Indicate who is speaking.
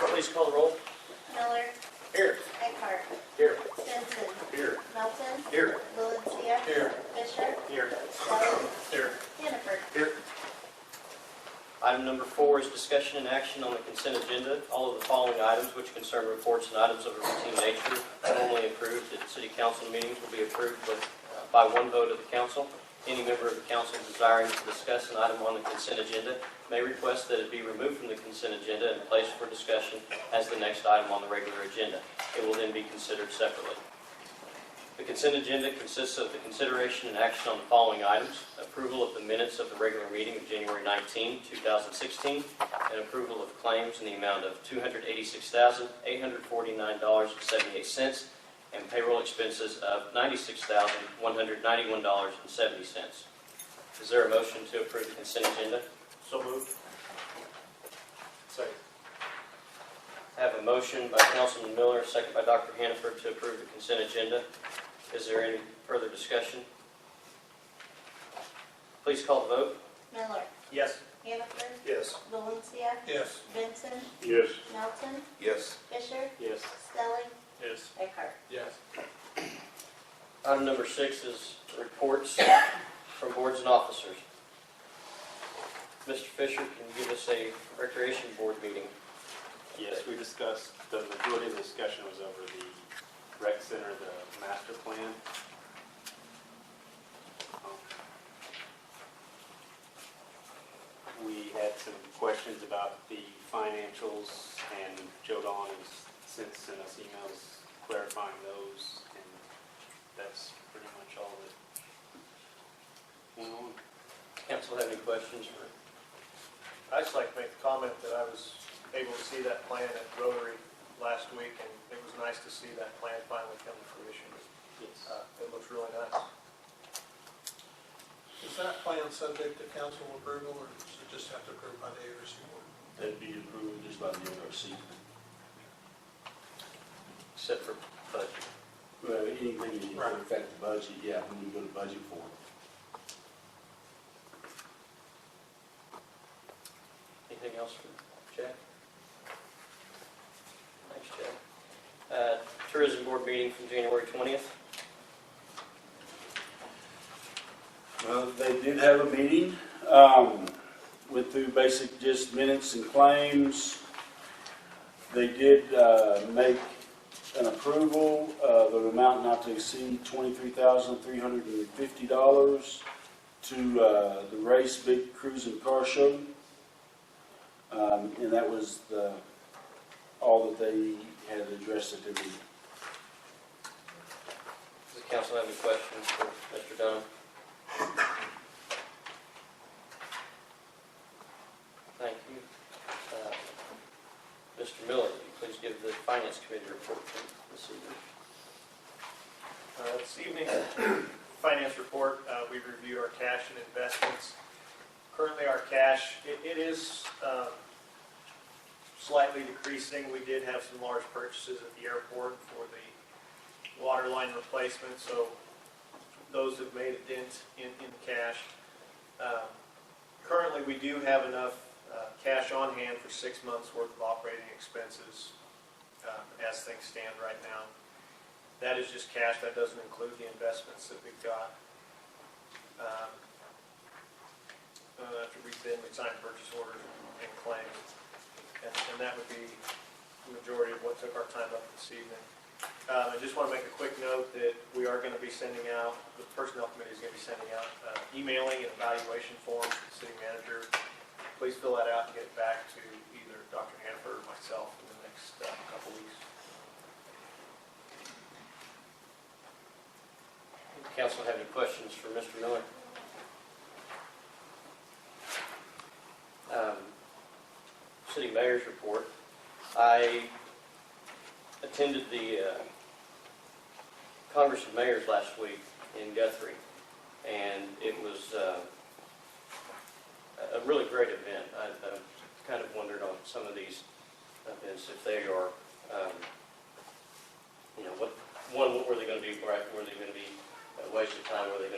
Speaker 1: Please call the roll.
Speaker 2: Miller,
Speaker 1: Here.
Speaker 2: Eckhart,
Speaker 1: Here.
Speaker 2: Stinson,
Speaker 1: Here.
Speaker 2: Melton,
Speaker 1: Here.
Speaker 2: Valencia,
Speaker 1: Here.
Speaker 2: Fisher,
Speaker 1: Here.
Speaker 2: Wallace,
Speaker 1: Here.
Speaker 2: Hannaford.
Speaker 1: Here.
Speaker 3: Item number four is discussion and action on the consent agenda. All of the following items which concern reports and items of a routine nature normally approved at city council meetings will be approved with- uh, by one vote of the council. Any member of the council desiring to discuss an item on the consent agenda may request that it be removed from the consent agenda and placed for discussion as the next item on the regular agenda. It will then be considered separately. The consent agenda consists of the consideration and action on the following items: approval of the minutes of the regular meeting of January 19, 2016, and approval of claims in the amount of $286,849.78 and payroll expenses of $96,191.70. Is there a motion to approve the consent agenda?
Speaker 1: So moved. Second.
Speaker 3: I have a motion by Councilman Miller, a second by Dr. Hannaford to approve the consent agenda. Is there any further discussion? Please call the vote.
Speaker 2: Miller,
Speaker 1: Yes.
Speaker 2: Hannaford,
Speaker 1: Yes.
Speaker 2: Valencia,
Speaker 1: Yes.
Speaker 2: Benson,
Speaker 4: Yes.
Speaker 2: Melton,
Speaker 4: Yes.
Speaker 2: Fisher,
Speaker 1: Yes.
Speaker 2: Stelling,
Speaker 1: Yes.
Speaker 2: Eckhart.
Speaker 1: Yes.
Speaker 3: Item number six is reports from boards and officers. Mr. Fisher, can you give us a recreation board meeting?
Speaker 5: Yes, we discussed, the majority of the discussion was over the rec center, the master plan. Um, We had some questions about the financials, and Joe Don has since sent us emails clarifying those, and that's pretty much all that went on.
Speaker 3: Council have any questions for
Speaker 6: I just like to make the comment that I was able to see that plan at Rotary last week, and it was nice to see that plan finally come to fruition.
Speaker 5: Yes.
Speaker 6: Uh, It looks really nice.
Speaker 7: Is that plan subject to council approval, or does it just have to approve by the ARC board?
Speaker 4: That'd be approved just by the NRC.
Speaker 3: except for budget?
Speaker 4: Well, anything that
Speaker 7: Right.
Speaker 4: would affect the budget, yeah, when we go to budget for it.
Speaker 3: Anything else for Jack? Thanks, Jack. Uh, Tourism Board meeting from January 20th.
Speaker 4: Well, they did have a meeting, um, went through basic just minutes and claims. They did, uh, make an approval of an amount not to exceed twenty-three thousand, three hundred and fifty dollars to, uh, the Race Big Cruise and Car Show. Um, and that was the, all that they had addressed at their meeting.
Speaker 3: Does the council have any questions for Mr. Dunham? Thank you. Uh, Mr. Miller, will you please give the Finance Committee report for this evening?
Speaker 6: Uh, This evening, finance report, uh, we reviewed our cash and investments. Currently, our cash, it- it is um, slightly decreasing. We did have some large purchases at the airport for the water line replacement, so those have made a dent in in the cash. Um, Currently, we do have enough uh, cash on hand for six months' worth of operating expenses um, as things stand right now. That is just cash, that doesn't include the investments that we've got. Um, uh, After we've been, we signed purchase orders and claims, and and that would be the majority of what took our time up this evening. Um, I just want to make a quick note that we are going to be sending out, the personnel committee is going to be sending out uh, emailing and evaluation forms to the city manager. Please fill that out and get it back to either Dr. Hannaford or myself in the next uh, couple weeks.
Speaker 3: Council have any questions for Mr. Miller? Um, City Mayor's report. I attended the uh, Congress of Mayors last week in Guthrie, and it was uh, a a really great event. I I kind of wondered on some of these events, if they are, um, you know, what, one, what were they going to be, right? were they going to be a waste of time, were they going to